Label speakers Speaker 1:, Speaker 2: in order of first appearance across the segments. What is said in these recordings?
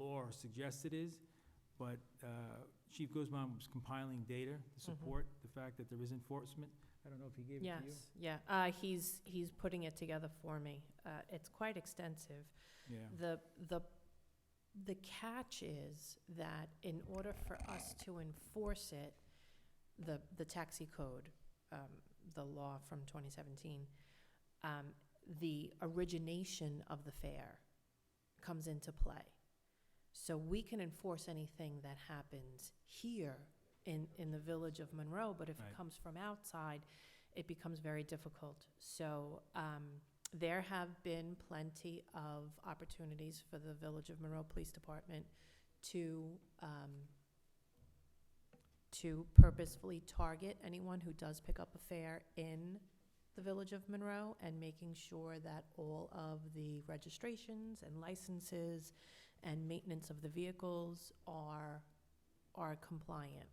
Speaker 1: or suggested is, but uh, Chief Guzman was compiling data
Speaker 2: Mm-hmm.
Speaker 1: to support the fact that there is enforcement. I don't know if he gave it to you.
Speaker 2: Yes, yeah, uh, he's, he's putting it together for me. Uh, it's quite extensive.
Speaker 1: Yeah,
Speaker 2: The, the, the catch is that in order for us to enforce it, the, the taxi code, um, the law from twenty seventeen, um, the origination of the fare comes into play. So we can enforce anything that happens here in, in the village of Monroe, but if
Speaker 1: Right.
Speaker 2: it comes from outside, it becomes very difficult. So, um, there have been plenty of opportunities for the Village of Monroe Police Department to, um, to purposefully target anyone who does pick up a fare in the Village of Monroe and making sure that all of the registrations and licenses and maintenance of the vehicles are, are compliant.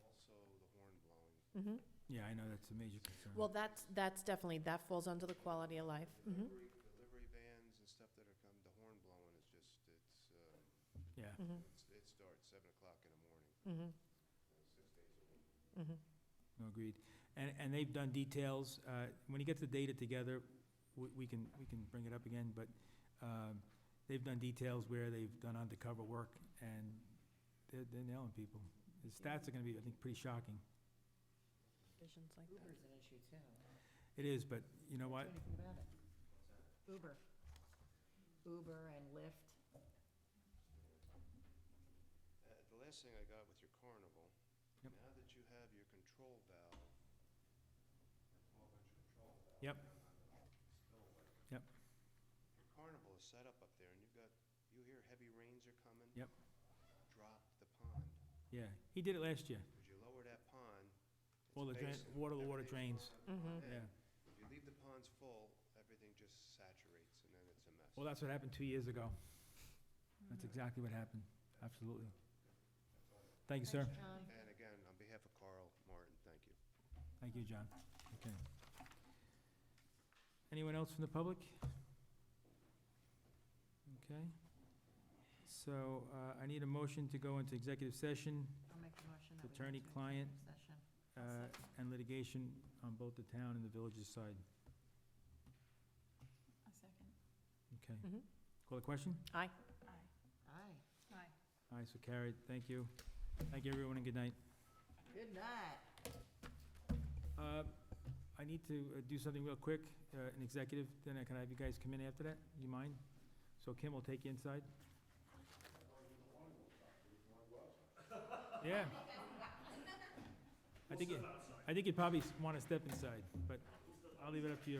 Speaker 3: Also, the horn blowing.
Speaker 2: Mhm.
Speaker 1: yeah, I know, that's a major concern.
Speaker 2: Well, that's, that's definitely, that falls under the quality of life. Mhm.
Speaker 3: Delivery, delivery vans and stuff that are come, the horn blowing is just, it's, uh,
Speaker 1: Yeah,
Speaker 2: Mhm.
Speaker 3: it's, it starts seven o'clock in the
Speaker 2: Mhm.
Speaker 3: morning, uh, six days a week.
Speaker 2: Mhm.
Speaker 1: no, agreed. And, and they've done details. uh, When you get the data together, we, we can, we can bring it up again, but um, they've done details where they've done undercover work and they're, they're nailing people. The stats are gonna be, I think, pretty shocking.
Speaker 2: Visions like that.
Speaker 4: Uber's an issue too.
Speaker 1: It is, but you know what?
Speaker 4: Do anything about it. Uber. Uber and Lyft.
Speaker 3: Uh, the last thing I got with your carnival,
Speaker 1: Yep.
Speaker 3: now that you have your control valve, twelve-inch control valve.
Speaker 1: Yep.
Speaker 3: down on the spillway,
Speaker 1: Yep.
Speaker 3: Your carnival is set up up there, and you've got, you hear heavy rains are coming.
Speaker 1: Yep.
Speaker 3: Drop the pond.
Speaker 1: Yeah, he did it last year.
Speaker 3: Because you lower that pond, it's
Speaker 1: All the drain,
Speaker 3: basin,
Speaker 1: water, the water
Speaker 3: everything's
Speaker 1: drains,
Speaker 4: Mm-hmm.
Speaker 2: Mhm.
Speaker 1: yeah.
Speaker 3: If you leave the ponds full, everything just saturates and then it's a mess.
Speaker 1: Well, that's what happened two years ago. That's exactly what happened, absolutely. Thank you, sir.
Speaker 4: Thanks, John.
Speaker 3: And again, on behalf of Carl Martin, thank you.
Speaker 1: Thank you, John. Okay. Anyone else from the public? Okay. So uh, I need a motion to go into executive session
Speaker 4: I'll make a motion that we. go to
Speaker 1: Attorney-client.
Speaker 4: executive Session.
Speaker 1: uh,
Speaker 4: I'll second.
Speaker 1: and litigation on both the town and the village's side.
Speaker 4: A second.
Speaker 1: Okay.
Speaker 2: Mhm.
Speaker 1: Call the question?
Speaker 2: Aye.
Speaker 4: Aye. Aye. Aye.
Speaker 1: Aye, so carried. Thank you. Thank you, everyone, and good night.
Speaker 4: Good night.
Speaker 1: Uh, I need to uh, do something real quick, uh, an executive, then I can have you guys come in after that, you mind? So Kim will take you inside. Yeah. I think, you- I think you'd probably want to step inside, but I'll leave it up to you.